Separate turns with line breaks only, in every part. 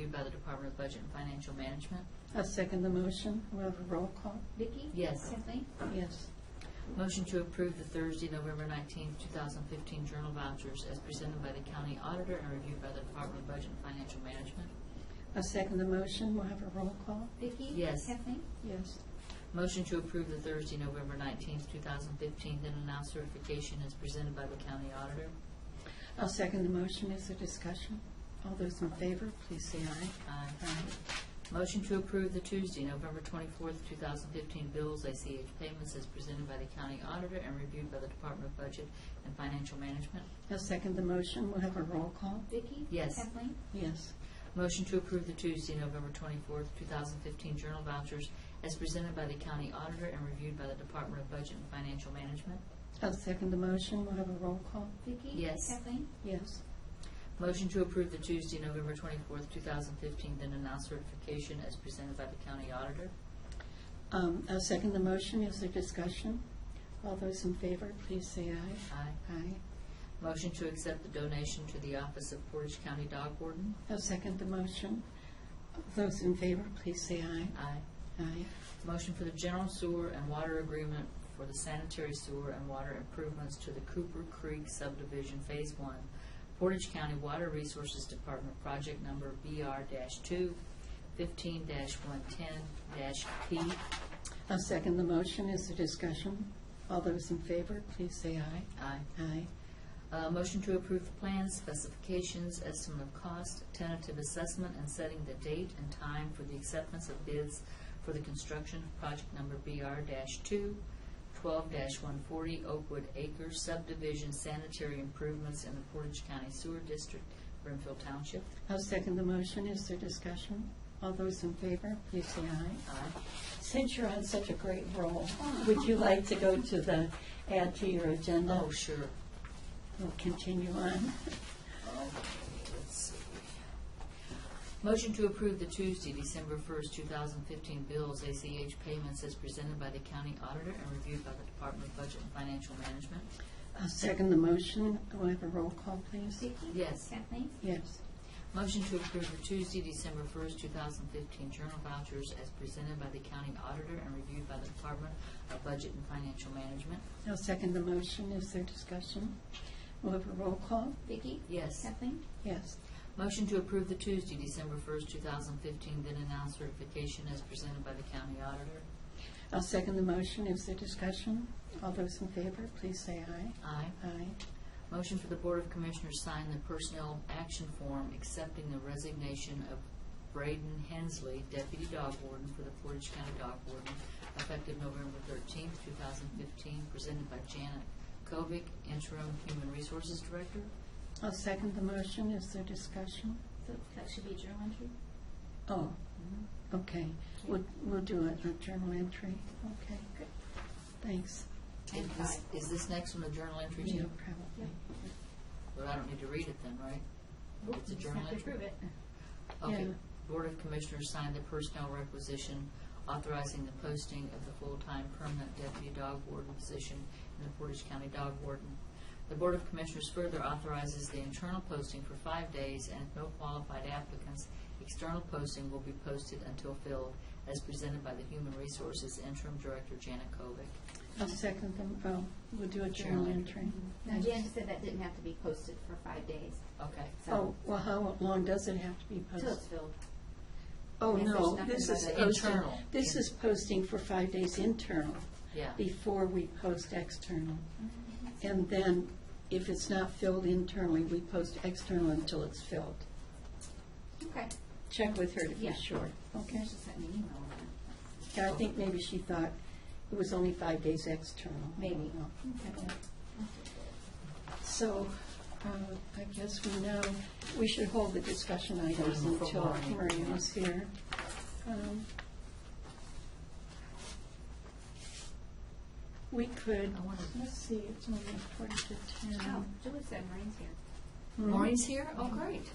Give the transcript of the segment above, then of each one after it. approved by the Department of Budget and Financial Management.
I second the motion. We'll have a roll call.
Vicki?
Yes.
Kathleen?
Yes.
Motion to approve the Thursday, November nineteenth, two thousand fifteen journal vouchers as presented by the county auditor and reviewed by the Department of Budget and Financial Management.
I second the motion. We'll have a roll call.
Vicki?
Yes.
Kathleen?
Yes.
Motion to approve the Thursday, November nineteenth, two thousand fifteen, then and now certification as presented by the county auditor.
I'll second the motion. Is there discussion? All those in favor, please say aye.
Aye. Motion to approve the Tuesday, November twenty-fourth, two thousand fifteen bills, ACH payments as presented by the county auditor and reviewed by the Department of Budget and Financial Management.
I'll second the motion. We'll have a roll call.
Vicki?
Yes.
Kathleen?
Yes.
Motion to approve the Tuesday, November twenty-fourth, two thousand fifteen journal vouchers as presented by the county auditor and reviewed by the Department of Budget and Financial Management.
I'll second the motion. We'll have a roll call.
Vicki?
Yes.
Kathleen?
Yes.
Motion to approve the Tuesday, November twenty-fourth, two thousand fifteen, then and now certification as presented by the county auditor.
Um, I'll second the motion. Is there discussion? All those in favor, please say aye.
Aye.
Aye.
Motion to accept the donation to the Office of Portage County Dog Warden.
I'll second the motion. Those in favor, please say aye.
Aye.
Aye.
Motion for the general sewer and water agreement for the sanitary sewer and water improvements to the Cooper Creek subdivision, Phase One, Portage County Water Resources Department, project number BR two fifteen one ten P.
I'll second the motion. Is there discussion? All those in favor, please say aye.
Aye.
Aye.
Uh, motion to approve the plans, specifications, estimate of cost, tentative assessment, and setting the date and time for the acceptance of bids for the construction of project number BR two, twelve one forty Oakwood Acres subdivision sanitary improvements in the Portage County Sewer District, Brimfield Township.
I'll second the motion. Is there discussion? All those in favor, please say aye.
Aye.
Since you're on such a great roll, would you like to go to the, add to your agenda?
Oh, sure.
We'll continue on.
Let's see. Motion to approve the Tuesday, December first, two thousand fifteen bills, ACH payments as presented by the county auditor and reviewed by the Department of Budget and Financial Management.
I'll second the motion. We'll have a roll call, please.
Vicki?
Yes.
Kathleen?
Yes.
Motion to approve the Tuesday, December first, two thousand fifteen journal vouchers as presented by the county auditor and reviewed by the Department of Budget and Financial Management.
I'll second the motion. Is there discussion? We'll have a roll call.
Vicki?
Yes.
Kathleen?
Yes.
Motion to approve the Tuesday, December first, two thousand fifteen, then announced certification as presented by the county auditor.
I'll second the motion. Is there discussion? All those in favor, please say aye.
Aye.
Aye.
Motion for the Board of Commissioners sign the personnel action form accepting the resignation of Braden Hensley, Deputy Dog Warden for the Portage County Dog Warden, effective November thirteenth, two thousand fifteen, presented by Janet Kovic, Interim Human Resources Director.
I'll second the motion. Is there discussion?
So that should be journal entry?
Oh, okay. We'll, we'll do a a journal entry. Okay.
Good.
Thanks.
Is this, is this next one a journal entry
Yeah,
too?
probably.
Well, I don't need to read it then, right? It's a
Just
journal
have to
entry.
approve it.
Okay.
Yeah.
Board of Commissioners signed the personnel requisition authorizing the posting of the full-time permanent deputy dog warden position in the Portage County Dog Warden. The Board of Commissioners further authorizes the internal posting for five days, and if no qualified applicants, external posting will be posted until filled, as presented by the Human Resources Interim Director Janet Kovic.
I'll second them. Oh, we'll do a journal
Journal
entry.
Now,
Nice.
Jan said that didn't have to be posted for five days,
Okay.
Oh,
so,
well, how long does it have to be
till it's
posted?
filled.
Oh,
Yes, there's
no,
nothing
this
about
is
it.
posting,
Internal.
this is posting for five days internal
Yeah.
before we post external. And then if it's not filled internally, we post external until it's filled.
Okay.
Check with her to be
Yeah.
sure. Okay.
She sent me an email on that.
Yeah, I think maybe she thought it was only five days external. I don't
Maybe.
know.
Okay.
So uh, I guess we know, we should hold the discussion items
Mm, for
until
Maureen,
Maureen
yeah.
is here. Um, We could,
I wanna-
let's see, it's only quarter to
Oh,
ten.
Julie said Maureen's here.
Hmm?
Maureen's here? Oh, great.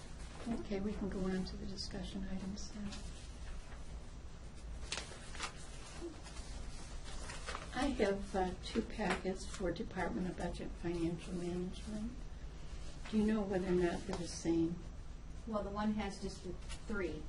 Okay, we can go on to the discussion items now. I have uh, two packets for Department of Budget Financial Management. Do you know whether or not they're the same?
Well, the one has just the three,